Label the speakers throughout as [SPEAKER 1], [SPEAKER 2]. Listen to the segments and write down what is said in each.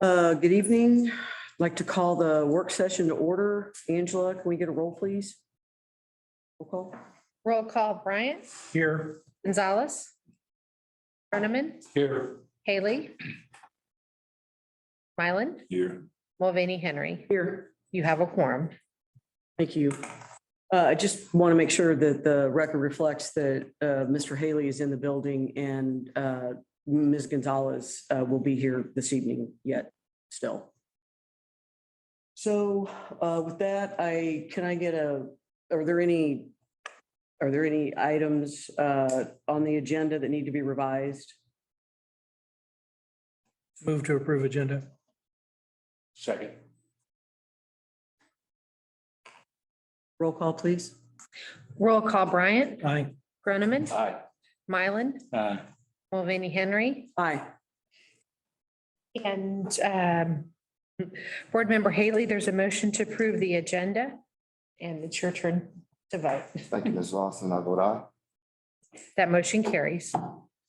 [SPEAKER 1] Uh, Good evening. I'd Like to call the work session to order. Angela, can we get a roll, please? Roll call.
[SPEAKER 2] Roll call Bryant,
[SPEAKER 3] Here.
[SPEAKER 2] Gonzalez, Brenneman,
[SPEAKER 3] Here.
[SPEAKER 2] Haley, Mylan,
[SPEAKER 3] Here.
[SPEAKER 2] Mulvaney Henry.
[SPEAKER 1] Here.
[SPEAKER 2] You have a quorum.
[SPEAKER 1] Thank you. Uh, I just want to make sure that the record reflects that uh, Mr. Haley is in the building and uh, Ms. Gonzalez uh, will be here this evening yet still. So uh, with that, I, can I get a, are there any, are there any items uh, on the agenda that need to be revised?
[SPEAKER 3] Move to approve agenda. Second.
[SPEAKER 1] Roll call, please.
[SPEAKER 2] Roll call Bryant,
[SPEAKER 3] Aye.
[SPEAKER 2] Brenneman,
[SPEAKER 3] Aye.
[SPEAKER 2] Mylan,
[SPEAKER 4] Uh,
[SPEAKER 3] Aye.
[SPEAKER 2] Mulvaney Henry,
[SPEAKER 1] Aye.
[SPEAKER 2] and um, Board Member Haley, there's a motion to approve the agenda, and it's your turn to vote.
[SPEAKER 5] Thank you, Ms. Lawson. I vote aye.
[SPEAKER 2] That motion carries.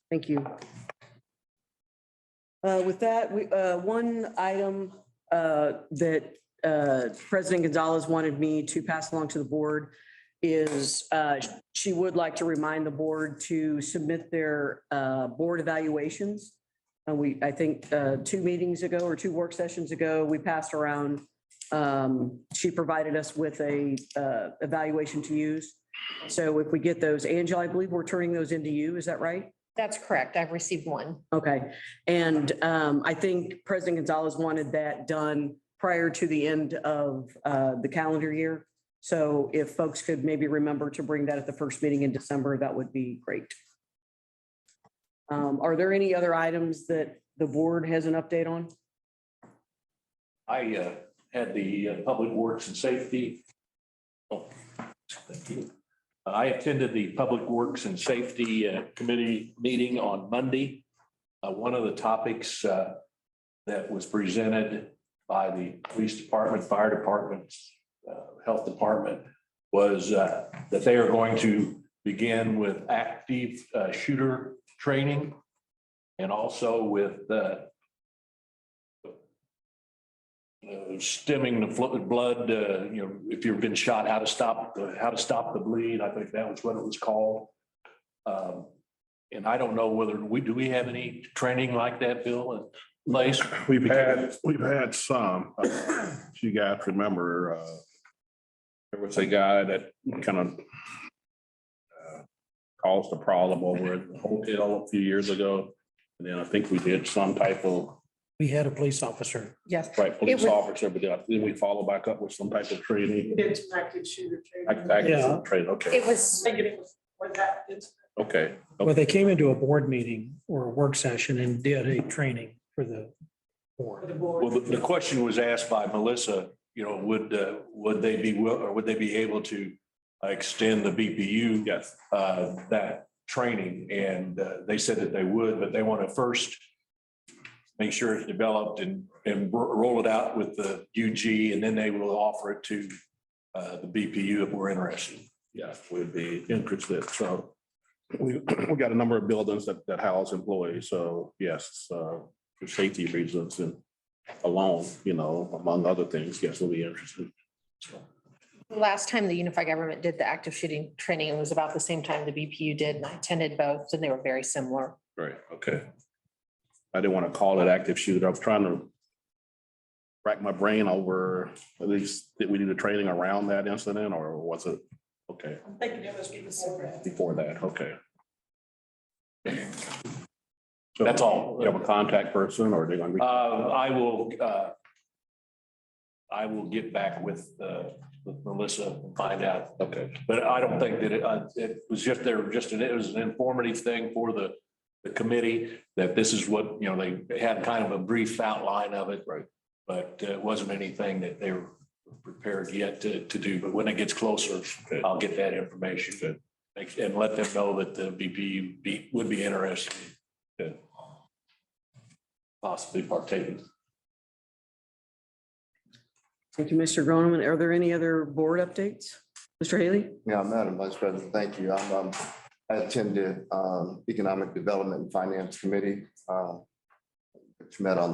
[SPEAKER 1] Thank you. Uh, With that, we, uh, one item uh, that uh, President Gonzalez wanted me to pass along to the board is uh, she would like to remind the board to submit their uh, board evaluations. And we, I think, uh, two meetings ago or two work sessions ago, we passed around, um, she provided us with a uh, evaluation to use. So if we get those, Angela, I believe we're turning those into you, is that right?
[SPEAKER 2] That's correct. I've received one.
[SPEAKER 1] Okay, and um, I think President Gonzalez wanted that done prior to the end of uh, the calendar year. So if folks could maybe remember to bring that at the first meeting in December, that would be great. Um, Are there any other items that the board has an update on?
[SPEAKER 4] I uh, had the uh, Public Works and Safety. oh, thank you. I attended the Public Works and Safety uh, Committee meeting on Monday. Uh, One of the topics uh, that was presented by the Police Department, Fire Department, uh, Health Department was uh, that they are going to begin with active uh, shooter training and also with uh, uh, stemming the flo- blood, uh, you know, if you've been shot, how to stop, the- how to stop the bleed. I think that was what it was called. Um, And I don't know whether we, do we have any training like that, Bill? and Lace?
[SPEAKER 6] We've had, we've had some. uh, If You guys remember, uh, there was a guy that kind of uh, caused a problem over at the hotel a few years ago. And then I think we did some type of,
[SPEAKER 3] We had a police officer.
[SPEAKER 2] Yes.
[SPEAKER 6] right, police
[SPEAKER 2] was-
[SPEAKER 6] officer, but then then we follow back up with some type of training.
[SPEAKER 7] It's active shooter
[SPEAKER 6] Act-
[SPEAKER 7] training.
[SPEAKER 3] Yeah.
[SPEAKER 6] act- Training, okay,
[SPEAKER 2] It was,
[SPEAKER 7] I get it for that. It's
[SPEAKER 6] okay.
[SPEAKER 3] Well, they came into a board meeting or a work session and did a training for the
[SPEAKER 7] for the
[SPEAKER 3] board.
[SPEAKER 7] board.
[SPEAKER 4] Well, the, the question was asked by Melissa, you know, would, uh, would they be, will or would they be able to extend the BPU?
[SPEAKER 6] Yes.
[SPEAKER 4] uh, that training, and uh, they said that they would, but they want to first make sure it's developed and, and ro- roll it out with the UG, and then they will offer it to uh, the BPU if we're interested.
[SPEAKER 6] Yeah, we'd be interested, so. We, we got a number of buildings that, that house employees, so yes, uh, for safety reasons and alone, you know, among other things, yes, we'll be interested.
[SPEAKER 2] last time the unified government did the active shooting training, it was about the same time the BPU did, and I attended both, and they were very similar.
[SPEAKER 6] Right, okay. I didn't want to call it active shooter. I was trying to rack my brain over, at least, did we do the training around that incident or was it? Okay,
[SPEAKER 7] I'm thinking it was before that.
[SPEAKER 6] before that, okay.
[SPEAKER 4] That's all.
[SPEAKER 6] You have a contact person or they're gonna?
[SPEAKER 4] Uh,
[SPEAKER 6] reach-
[SPEAKER 4] I will, uh, I will get back with uh, with Melissa and find out,
[SPEAKER 6] Okay.
[SPEAKER 4] but I don't think that it, uh, it was just, there, just, an- it was an informative thing for the, the committee, that this is what, you know, they- they had kind of a brief outline of it.
[SPEAKER 6] Right.
[SPEAKER 4] But uh, it wasn't anything that they were prepared yet to, to do, but when it gets closer,
[SPEAKER 6] Good.
[SPEAKER 4] I'll get that information. Make- And let them know that the BPU be, would be interested. in Possibly partaking.
[SPEAKER 1] Thank you, Mr. Groneman. Are there any other board updates? Mr. Haley?
[SPEAKER 5] Yeah, Madam Vice President, thank you. I'm, um, I attended, um, Economic Development and Finance Committee, uh, which met on